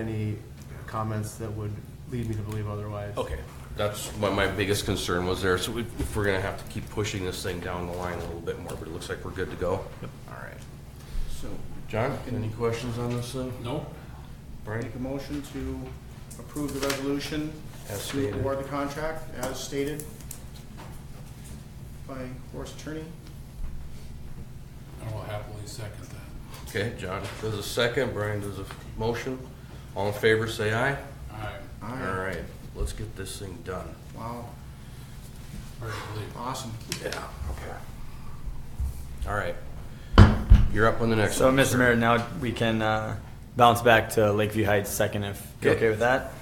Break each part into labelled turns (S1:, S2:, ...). S1: any comments that would lead me to believe otherwise.
S2: Okay, that's my, my biggest concern was there, so we- if we're gonna have to keep pushing this thing down the line a little bit more, but it looks like we're good to go. All right. So, John, any questions on this thing?
S3: No,
S2: Brian?
S4: Make a motion to approve the resolution
S2: As
S4: to
S2: stated.
S4: award the contract as stated by Horace Attorney.
S3: I will happily second that.
S2: Okay, John does a second, Brian does a motion. All in favor, say aye.
S3: I
S2: All right, let's get this thing done.
S4: Wow,
S3: hard to believe.
S4: awesome.
S2: Yeah, okay. All right. You're up on the next
S5: So,
S2: one.
S5: Mr. Mayor, now we can uh, bounce back to Lakeview Heights second if you're
S2: Okay.
S5: okay with that.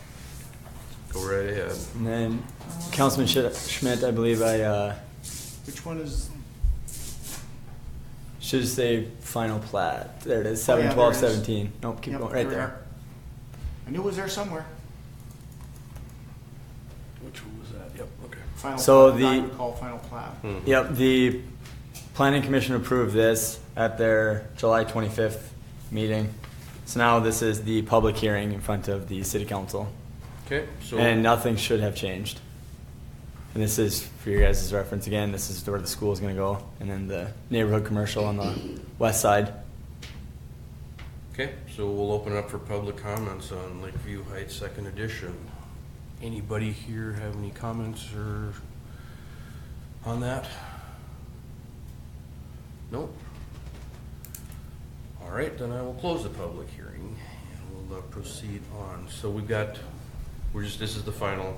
S2: Go right ahead.
S5: And then Councilman Schid- Schmidt, I believe I uh,
S4: Which one is?
S5: should say final plat. There it is,
S4: Oh, yeah,
S5: seven, twelve,
S4: there it is.
S5: seventeen. Nope, keep
S4: Yep,
S5: going, right
S4: we
S5: there.
S4: are. I knew it was there somewhere.
S2: Which one was that? Yep, okay.
S4: Final.
S5: So
S4: plat, I
S5: the-
S4: would call final plat.
S5: Yep, the planning commission approved this at their July twenty-fifth meeting. So now this is the public hearing in front of the city council,
S2: Okay, so.
S5: and nothing should have changed. And this is, for your guys' reference again, this is where the school is gonna go, and then the neighborhood commercial on the west side.
S2: Okay, so we'll open up for public comments on Lakeview Heights Second Edition. Anybody here have any comments or on that? Nope. All right, then I will close the public hearing and we'll uh, proceed on. So we've got, we're just, this is the final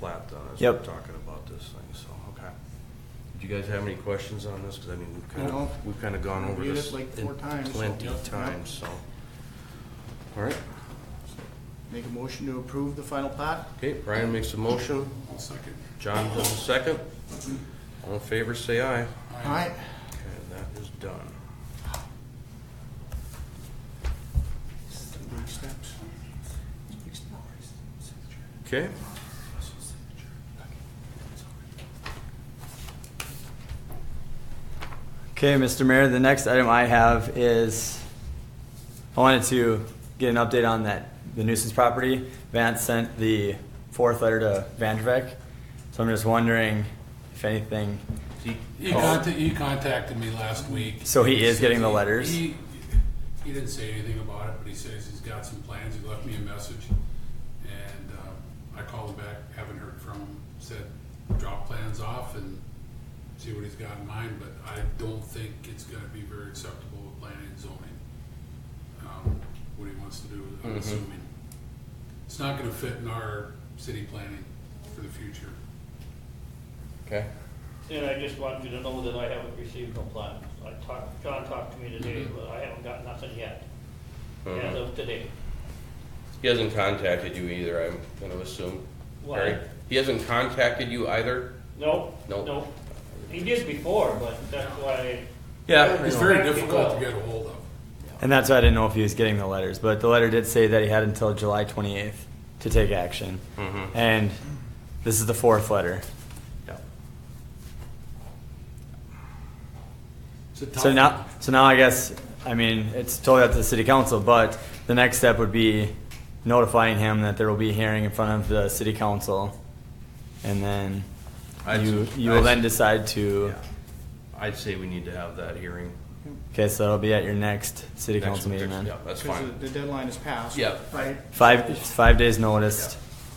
S2: plat then, as we're
S5: Yep.
S2: talking about this thing, so, okay. Do you guys have any questions on this? Because I mean, we've kind
S4: No.
S2: of, we've kind of gone over
S4: Reviewed
S2: this
S4: it like four
S2: in
S4: times, so-
S2: Plenty
S4: Yep.
S2: of times, so. All right,
S4: Make a motion to approve the final plat.
S2: okay, Brian makes a motion,
S3: I'll second.
S2: John does a second. All in favor, say aye.
S4: All right,
S2: Okay, that is done. Okay.
S5: Okay, Mr. Mayor, the next item I have is, I wanted to get an update on that, the nuisance property. Vance sent the fourth letter to Vandevek, so I'm just wondering if anything,
S3: He contacted, he contacted me last week.
S5: Oh. So he is getting the
S3: He-
S5: letters?
S3: He, he didn't say anything about it, but he says he's got some plans. He left me a message. And, uh, I called him back, haven't heard from him, said drop plans off and see what he's got in mind, but I don't think it's gonna be very acceptable with planning and zoning. Um, what he wants to do,
S5: Mm-hmm.
S3: I'm assuming. It's not gonna fit in our city planning for the future.
S2: Okay.
S6: And I just want you to know that I haven't received no plan. I talked, John talked to me today, but I haven't got nothing yet, as of today.
S2: He hasn't contacted you either, I'm gonna assume.
S6: What?
S2: Right? He hasn't contacted you either?
S6: No,
S2: No.
S6: no. He did before, but that's why,
S2: Yeah.
S3: It's very difficult to get a hold of.
S5: and that's why I didn't know if he was getting the letters, but the letter did say that he had until July twenty-eighth to take action. And this is the fourth letter.
S3: It's a tough
S5: So now, so now I guess, I mean, it's totally up to the city council, but the next step would be notifying him that there will be a hearing in front of the city council. And then
S2: I'd-
S5: you, you will then
S2: I'd-
S5: decide to,
S2: I'd say we need to have that hearing.
S5: okay, so that'll be at your next city council meeting then.
S2: Yeah, that's
S4: because
S2: fine.
S4: the deadline is passed.
S2: Yeah.
S4: Right,
S5: Five, five days noticed,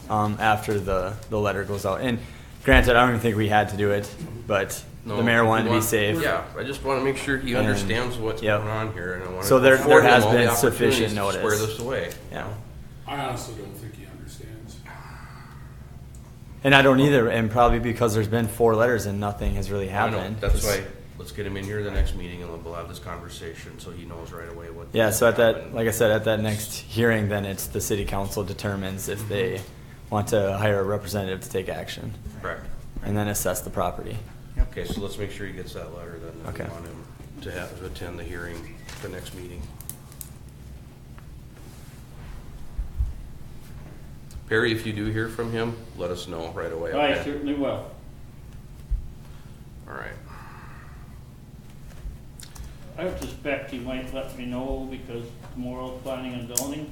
S5: um, after the, the letter goes out. And granted, I don't even think we had to do it, but
S2: No,
S5: the mayor wanted to
S2: we
S5: be
S2: want-
S5: safe.
S2: Yeah, I just wanna make sure he
S5: And-
S2: understands what's
S5: yep.
S2: going on here and I wanna.
S5: So there- there
S2: afford him
S5: has
S2: all the
S5: been sufficient
S2: opportunities to
S5: notice.
S2: Square this away.
S5: Yeah.
S3: I honestly don't think he understands.
S5: And I don't either, and probably because there's been four letters and nothing has really
S2: I know,
S5: happened.
S2: That's why, let's get him in here the next meeting and we'll have this conversation so he knows right away what.
S5: Yeah, so at that,
S2: happened.
S5: like I said, at that next hearing, then it's the city council determines if
S2: Mm-hmm.
S5: they want to hire a representative to take action
S2: Correct.
S5: and then assess the property.
S4: yep.
S2: Okay, so let's make sure he gets that letter then. if we
S5: Okay.
S2: Want him to have, to attend the hearing, the next meeting. Perry, if you do hear from him, let us know right away.
S6: I
S2: okay?
S6: certainly will.
S2: All right.
S6: I would suspect he might let me know because tomorrow's planning and zoning,